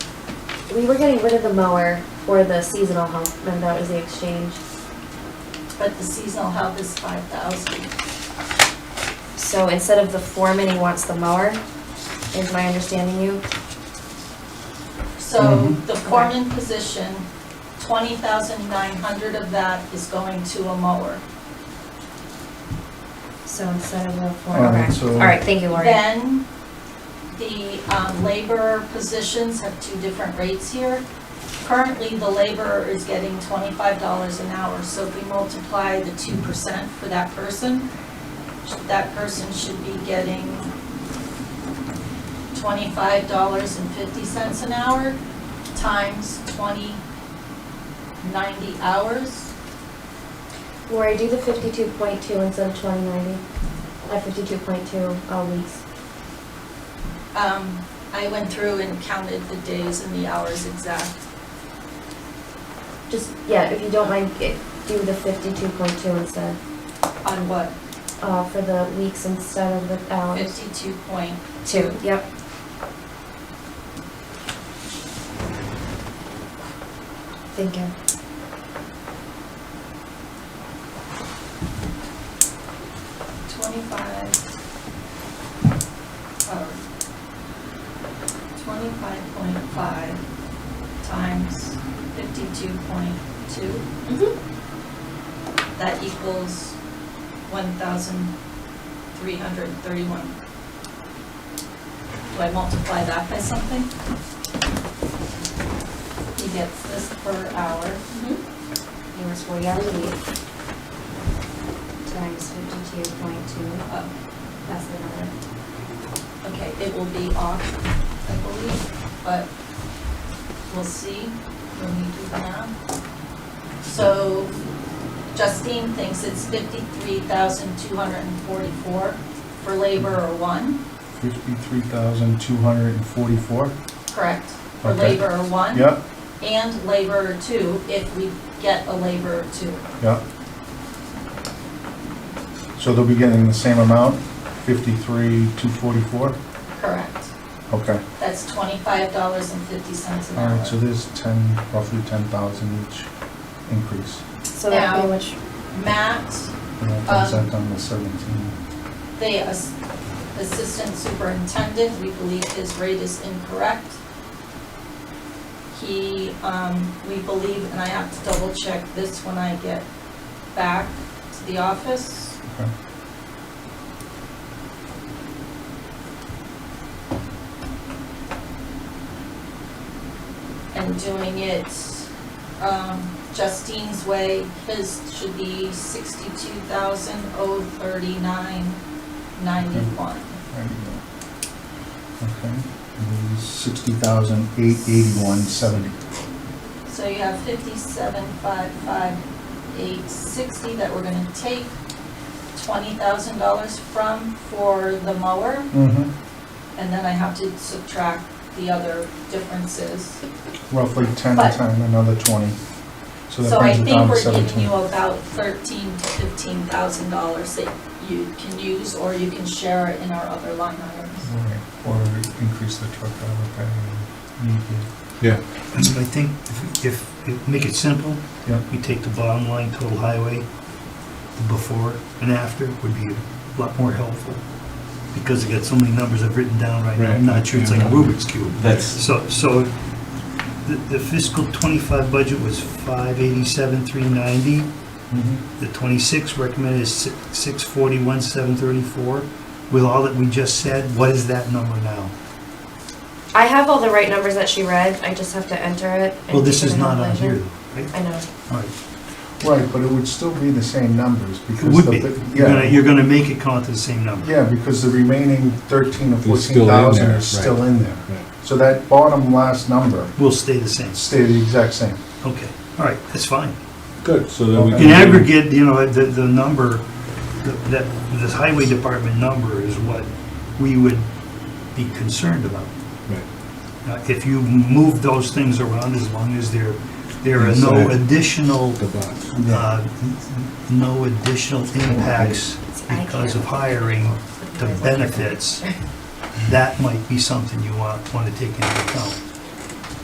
we were getting rid of the mower for the seasonal help, remember that was the exchange? but the seasonal help is five thousand. So instead of the foreman, he wants the mower, is my understanding you? So the foreman position, twenty thousand nine hundred of that is going to a mower. So instead of the All foreman, right, correct. so- All right, thank you, Lori. Then, the um, laborer positions have two different rates here. Currently, the laborer is getting twenty-five dollars an hour, so if we multiply the two percent for that person, that person should be getting twenty-five dollars and fifty cents an hour times twenty ninety hours. Lori, do the fifty-two point two instead of twenty ninety, uh, fifty-two point two, all weeks. Um, I went through and counted the days and the hours exact. Just, yeah, if you don't mind, get- do the fifty-two point two instead, On what? uh, for the weeks instead of the hours. Fifty-two point Two, yep. Thinking. twenty-five. um, Twenty-five point five times fifty-two point two, Mm-hmm. that equals one thousand three hundred thirty-one. Do I multiply that by something? He gets this per hour. It was forty hours a week. Times fifty-two point two, Uh, that's the number. Okay, it will be off, I believe, but we'll see when we do the math. So Justine thinks it's fifty-three thousand two hundred and forty-four for laborer one, Fifty-three thousand, two hundred and forty-four? correct? For Okay. laborer one. Yep, And laborer two, if we get a laborer two. yep. So they'll be getting the same amount, fifty-three, two forty-four? Correct. Okay, That's twenty-five dollars and fifty cents an all hour. right, so there's ten, roughly ten thousand each increase. So that'd be Now- which, Matt And that comes out Um. on the seventeen. The ass- assistant superintendent, we believe his rate is incorrect. He, um, we believe, and I have to double check this when I get back to the office. Okay. and doing it um, Justine's way, his should be sixty-two thousand oh thirty-nine ninety-one. there you go. Okay, sixty thousand, eight eighty-one, seventy. So you have fifty-seven five five eight sixty that we're gonna take twenty thousand dollars from for the mower, Mm-hmm. and then I have to subtract the other differences. Roughly ten, But- ten, another twenty. So So I that brings it think down to we're giving seventeen. you about thirteen to fifteen thousand dollars that you can use, or you can share it in our other line items. Right, Or increase the truck driver pay and need to. But I think if- if, if, make it simple, Yeah. we take the bottom line total highway, the before and after would be a lot more helpful. Because I got so many numbers I've written down right now, I'm not sure, it's like a Rubik's Cube. That's, So, so the the fiscal twenty-five budget was five eighty-seven, three ninety. Mm-hmm. The twenty-six recommended is six forty-one, seven thirty-four. With all that we just said, what is that number now? I have all the right numbers that she read, I just have to enter it. and Well, this keep it is in not on calculation. here, though, right? I know. All right. Right, but it would still be the same numbers because. It would the- be. You're gonna, Yeah, you're gonna make it come out to the same number. yeah, because the remaining thirteen or It's still fourteen in thousand there, is still in there. Right. So that bottom last number Will stay the same. stay the exact same. Okay, all right, that's fine. good, so then we Okay. can. In aggregate, you know, the, the number, the- that, this highway department number is what we would be concerned about. Right. Now, If you move those things around, as long as there, there are no Inside. additional, The box. uh, no additional impacts I because of can't. hiring the benefits, that might be something you want, want to take into account.